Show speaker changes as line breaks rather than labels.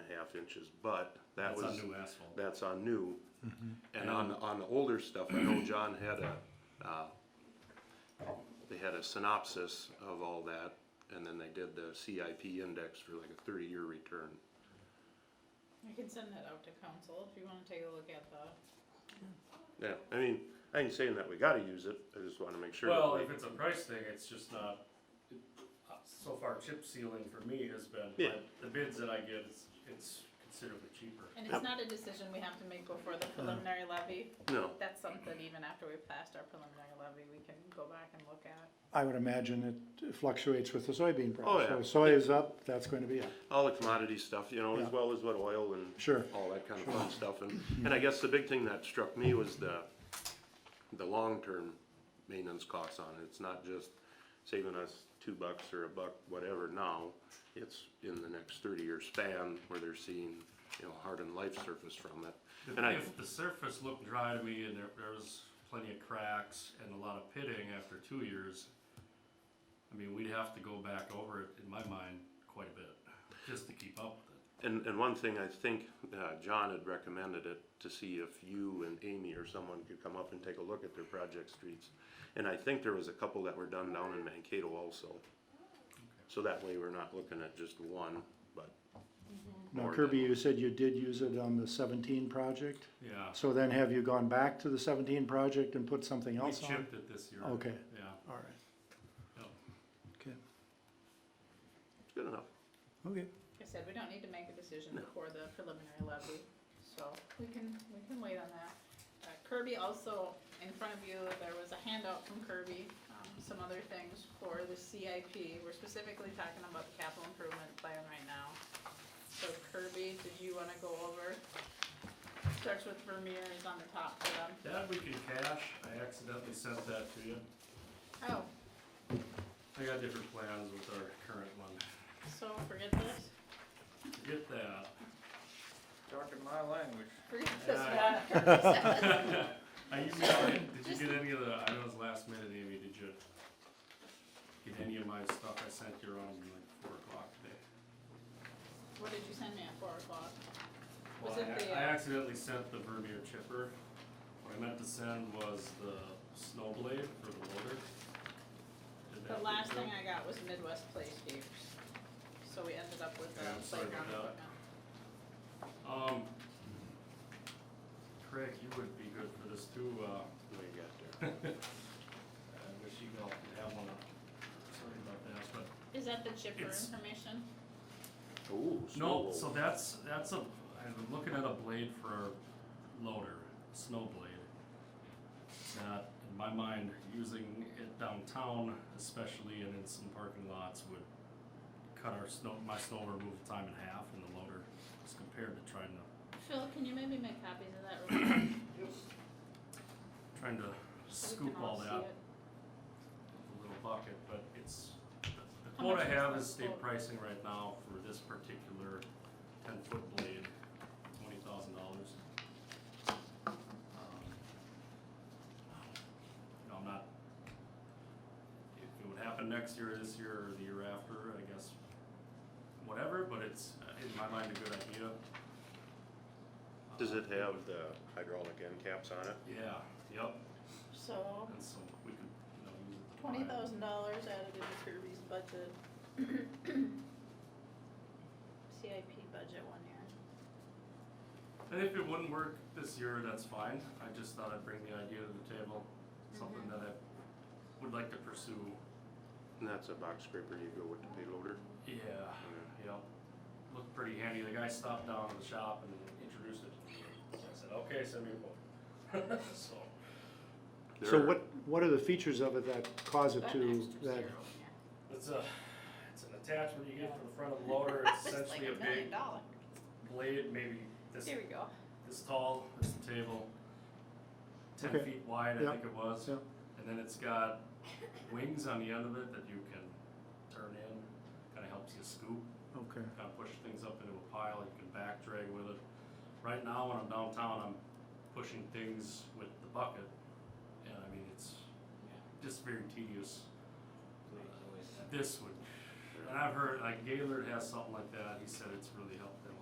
half inches, but that
That's
was.
on new Mm-hmm. asphalt.
That's on new. And on, on the older stuff, I know John had a, uh, they had a synopsis of all that, and then they did the CIP index for like a thirty-year return.
I can send that out to council if you wanna take a look at the,
Yeah, I mean, I ain't saying that we gotta use it, I just wanna make sure. that
Well,
we-
if it's a price thing, it's just not, it- uh, so far chip sealing for me has been,
Yeah.
but the bids that I get, it's, it's considerably cheaper.
and it's not a decision we have to make before the preliminary levy.
No,
That's something even after we've passed our preliminary levy, we can go back and look at.
I would imagine it fluctuates with the soybean price.
Oh, yeah.
So soy is up, that's going to be up.
all the commodity stuff, you know,
Yeah.
as well as what oil and.
Sure.
All that kind of fun stuff, and, and I guess the big thing that struck me was the, the long-term maintenance costs on it, it's not just saving us two bucks or a buck, whatever now, it's in the next thirty-year span where they're seeing, you know, hardened life surface from it.
If,
And I,
if the surface looked dry to me and there, there was plenty of cracks and a lot of pitting after two years, I mean, we'd have to go back over it, in my mind, quite a bit, just to keep up with it.
and, and one thing I think, uh, John had recommended it to see if you and Amy or someone could come up and take a look at their project streets. And I think there was a couple that were done down in Mankato also. So that way we're not looking at just one, but
Now
More
Kirby,
than-
you said you did use it on the seventeen project.
Yeah,
So then have you gone back to the seventeen project and put something
we
else on?
chipped it this year.
Okay.
Yeah,
All right,
yeah.
okay,
it's good enough.
okay.
Like I said, we don't need to make a decision
No.
before the preliminary levy, so we can, we can wait on that. Uh, Kirby also, in front of you, there was a handout from Kirby, um, some other things for the CIP. We're specifically talking about the capital improvement plan right now. So Kirby, did you wanna go over? Starts with Vermeer is on the top for them.
That we can cash, I accidentally sent that to you.
Oh,
I got different plans with our current one.
so forget this,
Get that.
Talking my language.
forget this
Yeah.
one.
I emailed it. Did you get any of the, I know it was last minute, Amy, did you get any of my stuff I sent you around like four o'clock today?
What did you send me at four o'clock? Was
Well, I
it
ac-
the,
I
uh,
accidentally sent the Vermeer chipper. What I meant to send was the snow blade for the loader. Did that
The
get
last
through?
thing I got was Midwest Playscapes, so we ended up with uh,
Yeah, I'm sorry
playground
about
equipment.
Um, Craig, you would be good for this too, uh,
What you got there?
I wish you all could have one. Sorry about that, but
Is that the chipper
It's-
information?
Ooh,
No,
snowball.
so that's, that's a, I'm looking at a blade for our loader, snow blade. That, in my mind, using it downtown especially and in some parking lots would cut our snow, my snow removal time in half in the loader as compared to trying to,
Phil, can you maybe make copies of that real quick?
trying to
so we
scoop
can
all
see
that
it?
with a little bucket, but it's, the
How
quote I
much is
have
that
is state
quote?
pricing right now for this particular ten foot blade, twenty thousand dollars. No, I'm not, if it would happen next year, this year, or the year after, I guess, whatever, but it's, uh, in my mind, a good idea.
Does it have the hydraulic end caps on it?
Yeah, yep,
So,
and so we could, you know, use it to.
twenty
buy-
thousand dollars added into Kirby's budget. CIP budget one year.
And if it wouldn't work this year, that's fine. I just thought I'd bring the idea to the table, something that I would like to pursue.
And that's a box scraper you go with the payloader?
Yeah, yeah. Looked pretty handy. The guy stopped down at the shop and introduced it to me. So I said, okay, send me a quote. so,
So
There-
what, what are the features of it that cause it
That
to,
extra
that,
zero in there.
it's a, it's an attachment you get for the front of the loader. It's
It's like
essentially
a
a
million
big
dollars.
blade, maybe this
Here we go.
this tall, this table, ten
Okay.
feet wide, I
Yep.
think it was.
Yep.
And then it's got wings on the end of it that you can turn in. Kind of helps you scoop,
okay,
kind of push things up into a pile. You can back drag with it. Right now, when I'm downtown, I'm pushing things with the bucket, and I mean it's just very tedious. This would, and I've heard like Gaylord has something like that. He said it's really helped them